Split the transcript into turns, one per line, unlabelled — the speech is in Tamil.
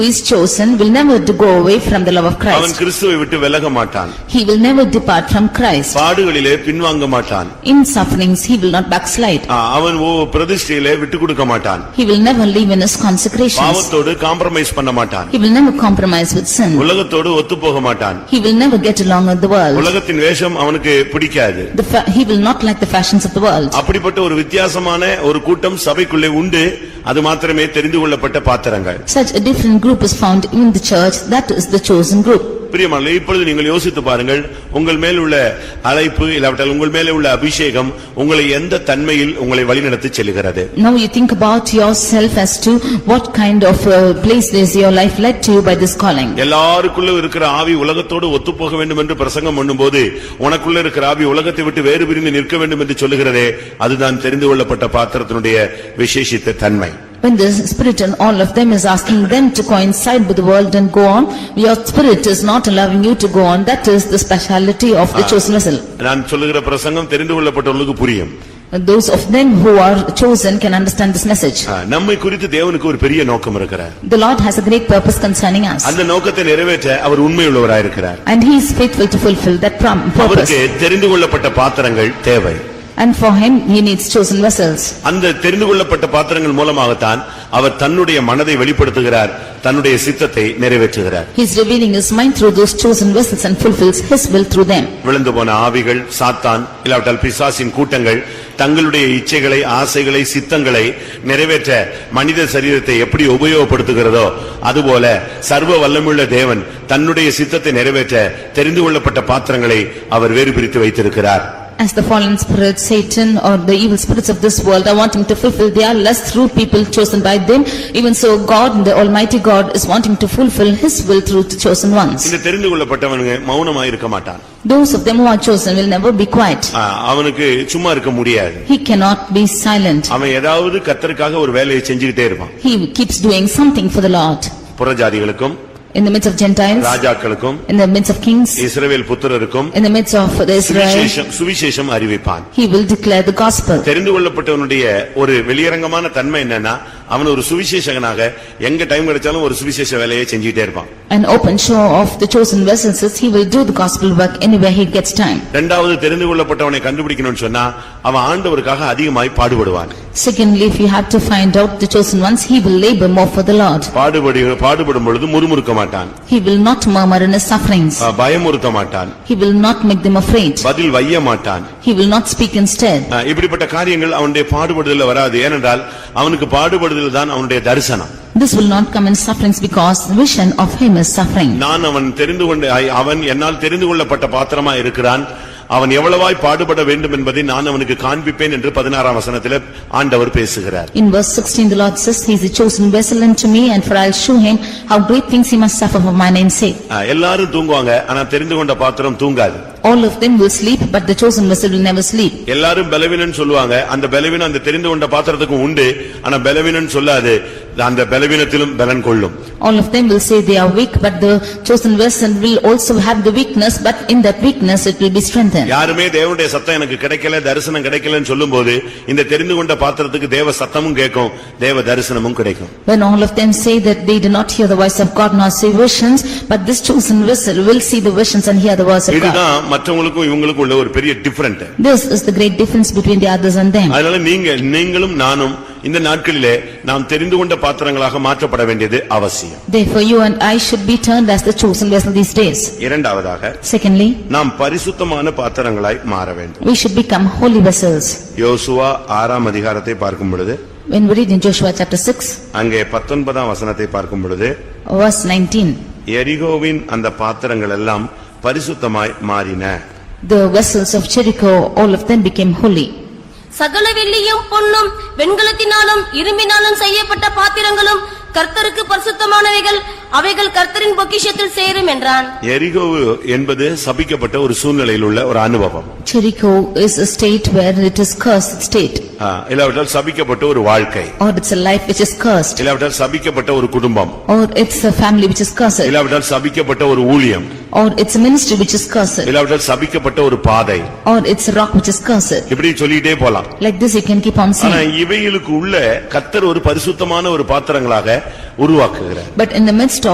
who is chosen will never to go away from the love of
அவன்
Christ.
கிறிஸ்துவை விட்டு விலக மாட்டான்
He will never depart from Christ.
பாடுகளிலே பின்வாங்க மாட்டான்
In sufferings, he will not backslide.
ஆ, அவன் ஓ பிரதிஷ்டையிலே விட்டு கொடுக்க மாட்டான்
He will never leave in his consecrations.
பாவத்தோடு காம்ப்ரமைஸ் பண்ண மாட்டான்
He will never compromise with sin.
உலகத்தோடு ஒத்துப்போக மாட்டான்
He will never get along with the world.
உலகத்தின் வேஷம் அவனுக்கு பிடிக்காது
The fa- He will not like the fashions of the world.
அப்படிப்பட்ட ஒரு வித்தியாசமான ஒரு கூட்டம் சபைக்குள்ளே உண்டு அது மாத்திரமே தெரிந்து கொள்ளப்பட்ட பாத்திரங்கள்
Such a different group is found in the church, that is the chosen group.
பிரியமான இப்பொழுது நீங்கள் யோசித்து பாருங்கள் உங்கள் மேல் உள்ள அழைப்பு இல்லாவிட்டால் உங்கள் மேலே உள்ள அபிஷேகம் உங்களை எந்த தன்மையில் உங்களை வழிநடத்திச் செல்கிறது
Now you think about yourself as to what kind of uh, place is your life led to by this calling.
எல்லாருக்குள்ள இருக்கிற ஆவி உலகத்தோடு ஒத்துப்போக வேண்டும் என்று பிரசங்கம் பண்ணும்போது உனக்குள்ள இருக்கிற ஆவி உலகத்தை விட்டு வேறு பிரிந்து நிற்க வேண்டும் என்று சொல்லுகிறதே அதுதான் தெரிந்து கொள்ளப்பட்ட பாத்திரத்தினுடைய விசேஷித்த தன்மை
When the spirit in all of them is asking them to coincide with the world and go on, your spirit is not allowing you to go on, that is the speciality of the chosen vessel.
நான் சொல்லுகிற பிரசங்கம் தெரிந்து கொள்ளப்பட்டவர்களுக்கு புரியும்
And Those of them who are chosen can understand this message.
ஆ, நம்மை குறித்து தேவனுக்கு ஒரு பெரிய நோக்கம் இருக்கிறார்
The Lord has a great purpose concerning us
அந்த நோக்கத்தை நிறைவேற்ற அவர் உண்மையுள்ளவராயிருக்கிறார்
and He is faithful to fulfill that prom-
அவருக்கு
purpose.
தெரிந்து கொள்ளப்பட்ட பாத்திரங்கள் தேவை
And for Him, He needs chosen vessels.
அந்த தெரிந்து கொள்ளப்பட்ட பாத்திரங்கள் மூலமாகத்தான் அவர் தன்னுடைய மனதை வெளிப்படுத்துகிறார் தன்னுடைய சித்தத்தை நிறைவேற்றுகிறார்
He is revealing His mind through those chosen vessels and fulfills His will through them.
விழுந்து போன ஆவிகள் சாத்தான் இல்லாவிட்டால் பிசாசின் கூட்டங்கள் தங்களுடைய இச்சைகளை ஆசைகளை சித்தங்களை நிறைவேற்ற மனித சரீரத்தை எப்படி உபயோகப்படுத்துகிறதோ அதுபோல சர்வ வல்லமுள்ள தேவன் தன்னுடைய சித்தத்தை நிறைவேற்ற தெரிந்து கொள்ளப்பட்ட பாத்திரங்களை அவர் வேறு பிரித்து வைத்திருக்கிறார்
As the fallen spirit Satan or the evil spirits of this world are wanting to fulfill their lust through people chosen by them, even so God, the Almighty God, is wanting to fulfill His will through the chosen ones.
இந்த தெரிந்து கொள்ளப்பட்டவனுங்க மௌனமா இருக்க மாட்டான்
Those of them who are chosen will never be quiet.
ஆ, அவனுக்கு சும்மா இருக்க முடியாது
He cannot be silent.
அவன் ஏதாவது கத்தருக்காக ஒரு வேலையை செஞ்சுக்கிட்டே இருப்பான்
He keeps doing something for the Lord.
புறஜாதிகளுக்கும்
In the midst of Gentiles,
ராஜாக்களுக்கும்
in the midst of kings,
Israel புத்திரருக்கும்
in the midst of the Israel,
சுவிசேஷம் சுவிசேஷம் அறிவிப்பான்
He will declare the gospel.
தெரிந்து கொள்ளப்பட்டவனுடைய ஒரு வெளியரங்கமான தன்மை என்னன்னா அவன் ஒரு சுவிசேஷகனாக எங்க டைம் கிடைச்சாலும் ஒரு சுவிசேஷ வேலையை செஞ்சுட்டே இருப்பான்
An open show of the chosen vessels is He will do the gospel work anywhere He gets time.
ரெண்டாவது தெரிந்து கொள்ளப்பட்டவனை கண்டுபிடிக்கணும்னு சொன்னா அவன் ஆண்டவருக்காக அதிகமாய் பாடுபடுவான்
Secondly, if you have to find out the chosen ones, he will labor more for the Lord.
பாடுபடு பாடுபடும் பொழுது முறுமுறுக்க மாட்டான்
He will not murmur in his sufferings.
அஹ், பயமுறுத்த மாட்டான்
He will not make them afraid.
பதில் வைய மாட்டான்
He will not speak instead.
அஹ், இப்படிப்பட்ட காரியங்கள் அவனுடைய பாடுபடுதல வராது ஏனென்றால் அவனுக்கு பாடுபடுதல் தான் அவனுடைய தரிசனம்
This will not come in sufferings because the vision of him is suffering.
நான் அவன் தெரிந்து கொண்ட ஐ- அவன் என்னால் தெரிந்து கொள்ளப்பட்ட பாத்திரமா இருக்கிறான் அவன் எவ்வளவாய் பாடுபட வேண்டும் என்பதை நான் அவனுக்கு காண்பிப்பேன் என்று பதினாறாம் வசனத்திலே ஆண்டவர் பேசுகிறார்
In verse sixteen, the Lord says, "He is a chosen vessel unto me, and for I will shew him how great things he must suffer for my name's sake."
அஹ், எல்லாரும் தூங்குவாங்க ஆனா தெரிந்து கொண்ட பாத்திரம் தூங்காது
All of them will sleep, but the chosen vessel will never sleep.
எல்லாரும் பலவீனன் சொல்லுவாங்க அந்த பலவீனம் அந்த தெரிந்து கொண்ட பாத்திரத்துக்கும் உண்டு ஆனா பலவீனன் சொல்லாது அந்த பலவீனத்திலும் பலன் கொள்ளும்
All of them will say they are weak, but the chosen vessel will also have the weakness, but in that weakness it will be strengthened.
யாருமே தேவனுடைய சத்தம் எனக்கு கிடைக்கல தரிசனம் கிடைக்கலன்னு சொல்லும்போது இந்த தெரிந்து கொண்ட பாத்திரத்துக்கு தேவ சத்தமும் கேட்கும் தேவ தரிசனமும் கிடைக்கும்
When all of them say that they do not hear the voice of God nor see visions, but this chosen vessel will see the visions and hear the voice of God.
இதுதான் மற்றவங்களுக்கும் இவங்களுக்கும் உள்ள ஒரு பெரிய different
This is the great difference between the others and them.
அதனால நீங்க நீங்களும் நானும் இந்த நாட்களிலே நாம் தெரிந்து கொண்ட பாத்திரங்களாக மாற்றப்பட வேண்டியது அவசியம்
Therefore you and I should be turned as the chosen vessel these days.
இரண்டாவதாக
Secondly,
நாம் பரிசுத்தமான பாத்திரங்களாய் மாற வேண்டும்
we should become holy vessels.
யோசுவா ஆறாம் அதிகாரத்தை பார்க்கும் பொழுது
When we read in Joshua chapter 6,
அங்கே பத்தொன்பதாம் வசனத்தை பார்க்கும் பொழுது
verse 19,
எரிகோவின் அந்த பாத்திரங்கள் எல்லாம் பரிசுத்தமாய் மாறின
the vessels of Jericho, all of them became holy.
சகல வெள்ளியும் பொன்னும் வெண்கலத்தினாலும் இரும்பினாலும் செய்யப்பட்ட பாத்திரங்களும் கர்த்தருக்கு பரிசுத்தமானவைகள் அவைகள் கர்த்தரின் பொக்கிஷத்தில் சேரும் என்றான்
எரிகோவு என்பது சபிக்கப்பட்ட ஒரு சூழ்நிலையில் உள்ள ஒரு அனுபவம்
Jericho is a state where it is cursed state,
ஆ, இல்லாவிட்டால் சபிக்கப்பட்ட ஒரு வாழ்க்கை
or it's a life which is cursed,
இல்லாவிட்டால் சபிக்கப்பட்ட ஒரு குடும்பம்
or it's a family which is cursed.
இல்லாவிட்டால் சபிக்கப்பட்ட ஒரு ஊழியம்
or it's a ministry which is cursed,
இல்லாவிட்டால் சபிக்கப்பட்ட ஒரு பாதை
or it's a rock which is cursed.
இப்படி சொல்லிட்டே போலாம்
Like this you can keep on
ஆனா
saying.
இவைகளுக்கு உள்ள கத்தர் ஒரு பரிசுத்தமான ஒரு பாத்திரங்களாக உருவாக்குகிறார்
But in the midst of